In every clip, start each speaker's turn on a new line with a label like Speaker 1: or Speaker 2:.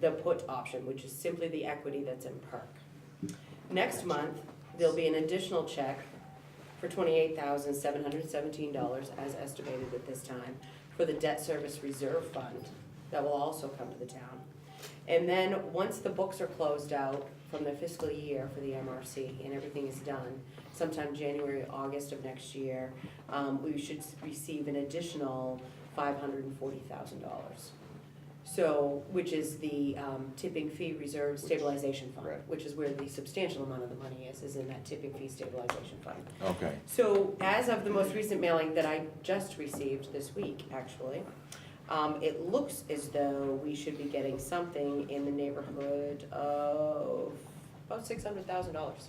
Speaker 1: the put option, which is simply the equity that's in perk. Next month, there'll be an additional check for twenty-eight thousand seven hundred seventeen dollars as estimated at this time for the debt service reserve fund that will also come to the town. And then, once the books are closed out from the fiscal year for the MRC and everything is done, sometime January, August of next year, um, we should s- receive an additional five hundred and forty thousand dollars. So, which is the um, tipping fee reserve stabilization fund,
Speaker 2: Right.
Speaker 1: which is where the substantial amount of the money is, is in that tipping fee stabilization fund.
Speaker 2: Okay.
Speaker 1: So as of the most recent mailing that I just received this week, actually, um, it looks as though we should be getting something in the neighborhood of about six hundred thousand dollars.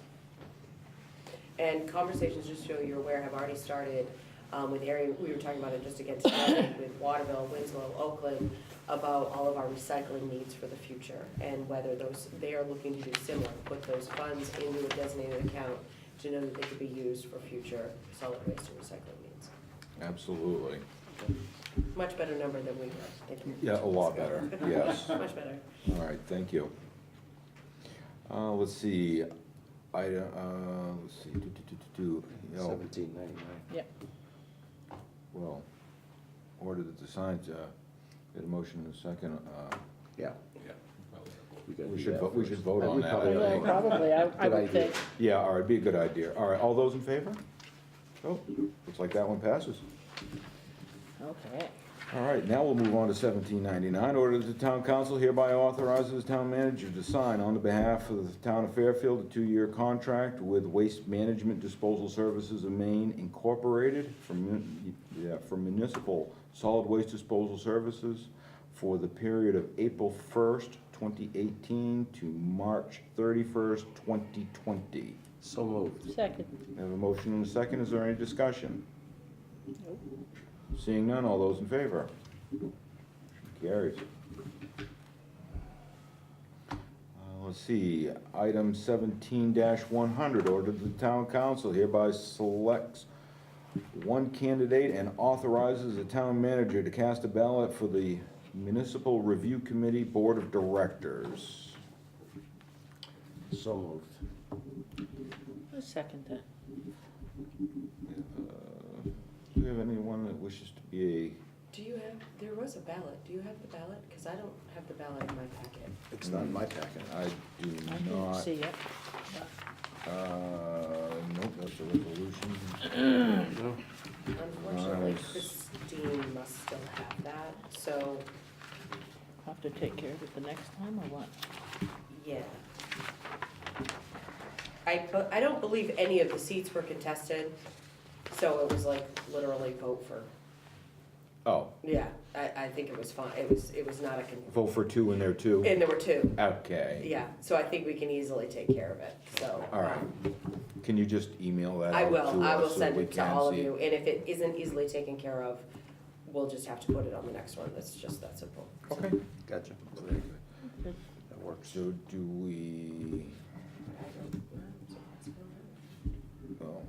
Speaker 1: And conversations, just so you're aware, have already started, um, with area, we were talking about it just again today, with Waterville, Winslow, Oakland, about all of our recycling needs for the future, and whether those, they are looking to do similar, put those funds into a designated account to know that they could be used for future solid waste and recycling needs.
Speaker 2: Absolutely.
Speaker 1: Much better number than we were thinking.
Speaker 2: Yeah, a lot better, yes. All
Speaker 1: Much better.
Speaker 2: right, thank you. Uh, let's see, I, uh, let's see, do, do, do, do, do, no,
Speaker 3: Seventeen ninety-nine.
Speaker 4: Yep.
Speaker 2: well, order that the signs, uh, get a motion in a second, uh,
Speaker 3: Yeah. Yeah.
Speaker 2: we should, vo- we should vote on that,
Speaker 4: We
Speaker 2: I
Speaker 4: will,
Speaker 2: think.
Speaker 4: probably, I, I
Speaker 3: Good
Speaker 4: would
Speaker 3: idea.
Speaker 4: think.
Speaker 2: Yeah, all right, be a good idea. All right, all those in favor? Oh, looks like that one passes.
Speaker 4: Okay.
Speaker 2: All right, now we'll move on to seventeen ninety-nine. Order that the town council hereby authorizes the town manager to sign on the behalf of the town of Fairfield a two-year contract with Waste Management Disposal Services of Maine Incorporated for mun- yeah, for municipal solid waste disposal services for the period of April first, twenty eighteen to March thirty-first, twenty twenty.
Speaker 3: So moved.
Speaker 4: Second.
Speaker 2: Have a motion and a second. Is there any discussion? Seeing none, all those in favor? Carries. Uh, Let's see, item seventeen one hundred, order the town council hereby selects one candidate and authorizes the town manager to cast a ballot for the municipal review committee board of directors.
Speaker 3: So moved.
Speaker 4: I'll Second that.
Speaker 2: Uh, Do we have anyone that wishes to be a
Speaker 1: Do you have, there was a ballot, do you have the ballot? Because I don't have the ballot in my packet.
Speaker 3: It's not in my packet.
Speaker 2: I do
Speaker 4: I didn't
Speaker 2: not,
Speaker 4: see it.
Speaker 2: uh, nope, that's a resolution.
Speaker 1: Unfortunately,
Speaker 2: Nice.
Speaker 1: Christine must still have that, so,
Speaker 4: Have to take care of it the next time or what?
Speaker 1: yeah. I, but I don't believe any of the seats were contested, so it was like literally vote for,
Speaker 2: Oh,
Speaker 1: yeah, I, I think it was fine, it was, it was not a, con-
Speaker 2: vote for two in there too?
Speaker 1: and there were two,
Speaker 2: Okay.
Speaker 1: yeah, so I think we can easily take care of it, so. um,
Speaker 2: All right. Can you just email that
Speaker 1: I
Speaker 2: out to us?
Speaker 1: will, I will
Speaker 2: so that
Speaker 1: send
Speaker 2: we
Speaker 1: it to
Speaker 2: can
Speaker 1: all of
Speaker 2: see
Speaker 1: you, and if it isn't easily taken care of, we'll just have to put it on the next one, that's just that simple.
Speaker 2: Okay.
Speaker 3: Gotcha.
Speaker 2: Very good.
Speaker 3: That works.
Speaker 2: So do we, well,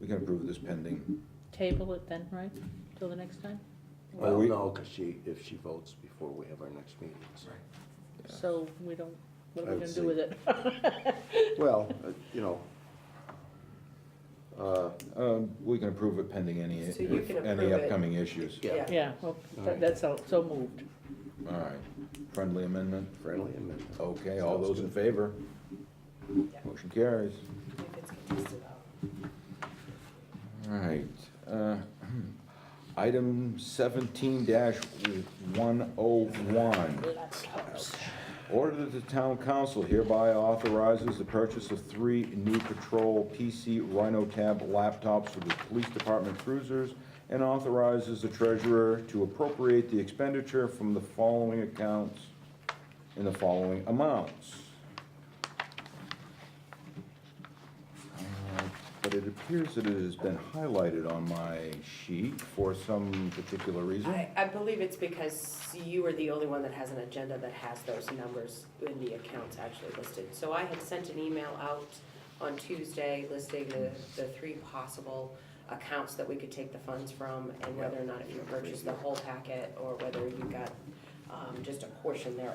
Speaker 2: we can approve this pending.
Speaker 4: Table it then, right? Till the next time?
Speaker 3: Well,
Speaker 2: we-
Speaker 3: no, because she, if she votes before we have our next meeting. so.
Speaker 2: Yeah.
Speaker 4: So we don't, what are
Speaker 3: I would
Speaker 4: we gonna
Speaker 3: say-
Speaker 4: do with it?
Speaker 3: Well, uh, you know. Uh,
Speaker 2: Um, we can approve it pending any,
Speaker 1: So you can approve
Speaker 2: any
Speaker 1: it.
Speaker 2: upcoming issues.
Speaker 3: yeah,
Speaker 4: Yeah, well,
Speaker 3: All
Speaker 4: that-
Speaker 3: right.
Speaker 4: that's all, so moved.
Speaker 2: All right. Friendly amendment?
Speaker 3: friendly amendment.
Speaker 2: Okay, all
Speaker 3: Sounds
Speaker 2: those in
Speaker 3: good.
Speaker 2: favor? Motion carries.
Speaker 1: If it's contested, I'll-
Speaker 2: All right. uh, Item seventeen one oh one. Order that the town council hereby authorizes the purchase of three new patrol PC Rhino Tab laptops for the police department cruisers and authorizes the treasurer to appropriate the expenditure from the following accounts in the following amounts. Uh, But it appears that it has been highlighted on my sheet for some particular reason.
Speaker 1: I, I believe it's because you are the only one that has an agenda that has those numbers in the accounts actually listed. So I had sent an email out on Tuesday listing the, the three possible accounts that we could take the funds from and whether or not if you purchased the whole packet or whether you got, um, just a portion thereof.